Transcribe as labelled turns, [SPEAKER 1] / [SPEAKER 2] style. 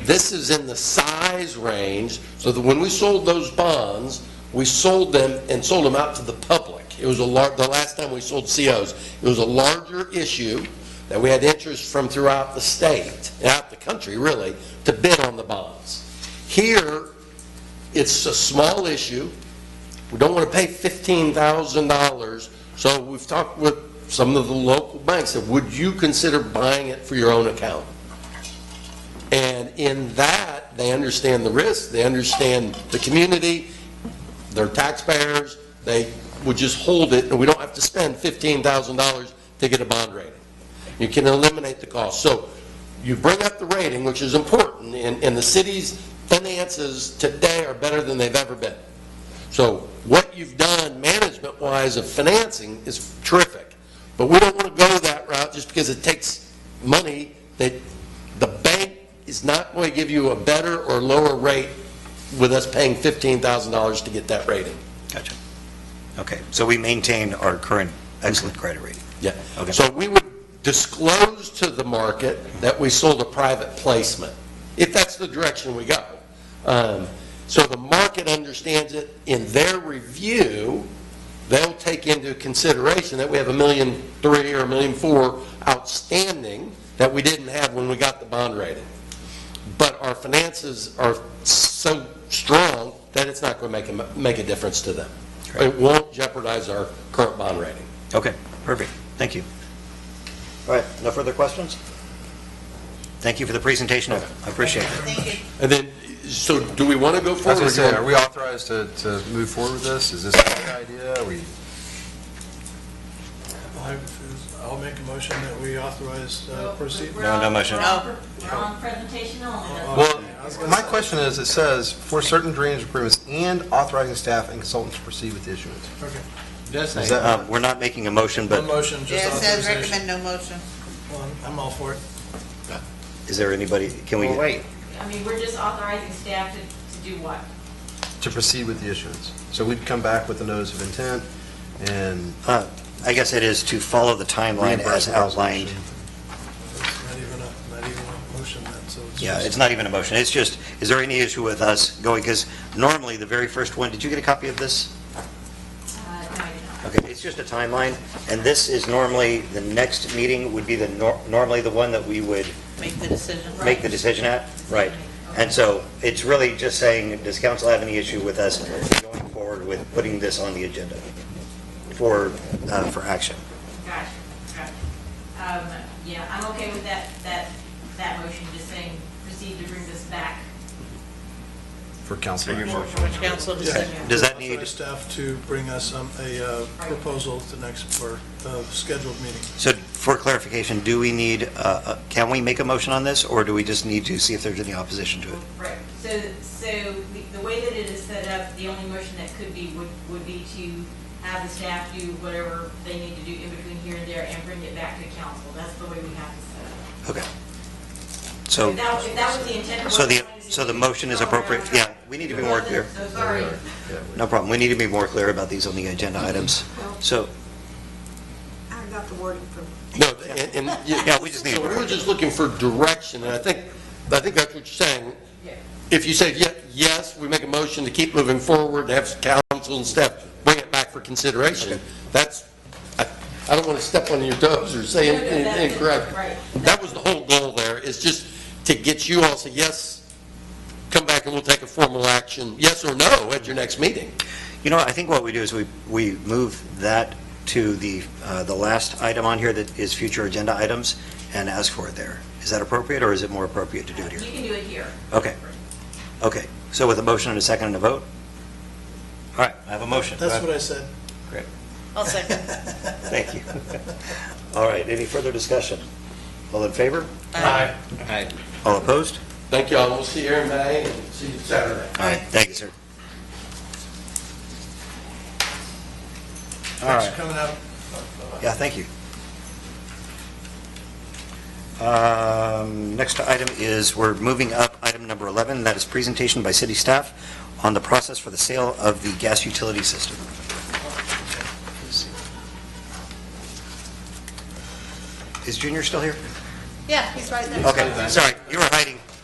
[SPEAKER 1] This is in the size range, so that when we sold those bonds, we sold them and sold them out to the public. It was a lar, the last time we sold COs, it was a larger issue that we had interest from throughout the state, out the country, really, to bid on the bonds. Here, it's a small issue. We don't want to pay $15,000, so we've talked with some of the local banks, said, would you consider buying it for your own account? And in that, they understand the risk, they understand the community, they're taxpayers, they would just hold it, and we don't have to spend $15,000 to get a bond rating. You can eliminate the cost. So you bring up the rating, which is important, and, and the city's finances today are better than they've ever been. So what you've done management-wise of financing is terrific, but we don't want to go that route just because it takes money that the bank is not going to give you a better or lower rate with us paying $15,000 to get that rating.
[SPEAKER 2] Gotcha. Okay, so we maintain our current excellent credit rating.
[SPEAKER 1] Yeah.
[SPEAKER 2] Okay.
[SPEAKER 1] So we would disclose to the market that we sold a private placement, if that's the direction we go. Um, So the market understands it. In their review, they'll take into consideration that we have a million three or a million four outstanding that we didn't have when we got the bond rating. But our finances are so strong that it's not going to make a, make a difference to them. It
[SPEAKER 2] Correct.
[SPEAKER 1] won't jeopardize our current bond rating.
[SPEAKER 2] Okay, perfect, thank you. All right, no further questions? Thank you for the presentation, I appreciate it.
[SPEAKER 1] And then, so do we want to go
[SPEAKER 3] I was
[SPEAKER 1] forward?
[SPEAKER 3] gonna say, are we authorized to, to move forward with this? Is this a good idea? Are we,
[SPEAKER 4] I- I'll make a motion that we authorize uh, proceed.
[SPEAKER 2] No, no motion.
[SPEAKER 5] We're on um, presentation only.
[SPEAKER 3] well, my question is, it says, for certain drainage improvements and authorizing staff and consultants to proceed with issuance.
[SPEAKER 4] Does
[SPEAKER 2] Is that- um, We're not making a motion,
[SPEAKER 4] No
[SPEAKER 2] but
[SPEAKER 4] motion,
[SPEAKER 6] Yeah,
[SPEAKER 4] just
[SPEAKER 6] it says
[SPEAKER 4] authorization.
[SPEAKER 6] recommend no motion.
[SPEAKER 4] Well, I'm all for it.
[SPEAKER 2] is there anybody, can we?
[SPEAKER 5] I mean, we're just authorizing staff to, to do what?
[SPEAKER 3] To proceed with the issuance. So we'd come back with a notice of intent and.
[SPEAKER 2] uh, I guess it is to follow the timeline as outlined.
[SPEAKER 4] It's Not even a, not even a motion then, so it's
[SPEAKER 2] Yeah, it's
[SPEAKER 4] just.
[SPEAKER 2] not even a motion, it's just, is there any issue with us going, because normally the very first one, did you get a copy of this?
[SPEAKER 5] Uh, no, you're not.
[SPEAKER 2] Okay, it's just a timeline, and this is normally, the next meeting would be the, nor- normally the one that we would
[SPEAKER 6] Make the decision.
[SPEAKER 2] make the decision at? Right. And so it's really just saying, does council have any issue with us going forward with putting this on the agenda for, uh, for action?
[SPEAKER 5] Gotcha, gotcha. Um, yeah, I'm okay with that, that, that motion, just saying, proceed to bring this back.
[SPEAKER 3] For council.
[SPEAKER 6] For which council decision.
[SPEAKER 2] Does that need-
[SPEAKER 4] Authorize staff to bring us um, a uh, proposal at the next, for uh, scheduled meeting.
[SPEAKER 2] So for clarification, do we need, uh, uh, can we make a motion on this, or do we just need to see if there's any opposition to it?
[SPEAKER 5] Right, so, so the- the way that it is set up, the only motion that could be, would, would be to have the staff do whatever they need to do in between here and there and bring it back to council. That's the way we have to set it up.
[SPEAKER 2] Okay. So,
[SPEAKER 5] If that, if that was the intent. of
[SPEAKER 2] so
[SPEAKER 5] what we
[SPEAKER 2] the,
[SPEAKER 5] wanted to
[SPEAKER 2] so
[SPEAKER 5] do,
[SPEAKER 2] the motion is
[SPEAKER 5] throw it around.
[SPEAKER 2] appropriate, yeah, we need to be more clear.
[SPEAKER 5] So sorry.
[SPEAKER 2] No problem, we need to be more clear about these on the agenda items. So,
[SPEAKER 7] I got the wording from
[SPEAKER 1] No, and, and, yeah,
[SPEAKER 2] yeah, we just need.
[SPEAKER 1] so we're just looking for direction, and I think, I think that's what you're saying.
[SPEAKER 5] Yeah.
[SPEAKER 1] If you say, ye- yes, we make a motion to keep moving forward, have council and staff bring it back for consideration, that's, I, I don't want to step on your toes or say
[SPEAKER 5] No, no, that's
[SPEAKER 1] anything
[SPEAKER 5] it.
[SPEAKER 1] incorrect.
[SPEAKER 5] Right.
[SPEAKER 1] That was the whole goal there, is just to get you all to say, yes, come back and we'll take a formal action, yes or no, at your next meeting.
[SPEAKER 2] You know, I think what we do is we, we move that to the, uh, the last item on here that is future agenda items and ask for it there. Is that appropriate, or is it more appropriate to do it
[SPEAKER 5] You
[SPEAKER 2] here?
[SPEAKER 5] can do it here.
[SPEAKER 2] Okay, okay. So with a motion and a second and a vote? All right, I have a motion.
[SPEAKER 4] That's what I said.
[SPEAKER 6] I'll second.
[SPEAKER 2] Thank you. All right, any further discussion? All in favor?
[SPEAKER 1] Aye.
[SPEAKER 2] All opposed?
[SPEAKER 1] Thank y'all, we'll see you here in May, and see you Saturday.
[SPEAKER 2] All right, thank you, sir. All
[SPEAKER 4] Thanks
[SPEAKER 2] right.
[SPEAKER 4] for coming out.
[SPEAKER 2] Yeah, thank you. Um, Next item is, we're moving up item number 11, that is presentation by city staff on the process for the sale of the gas utility system. Is Junior still here?
[SPEAKER 6] Yeah, he's right there.
[SPEAKER 2] Okay, sorry, you were hiding.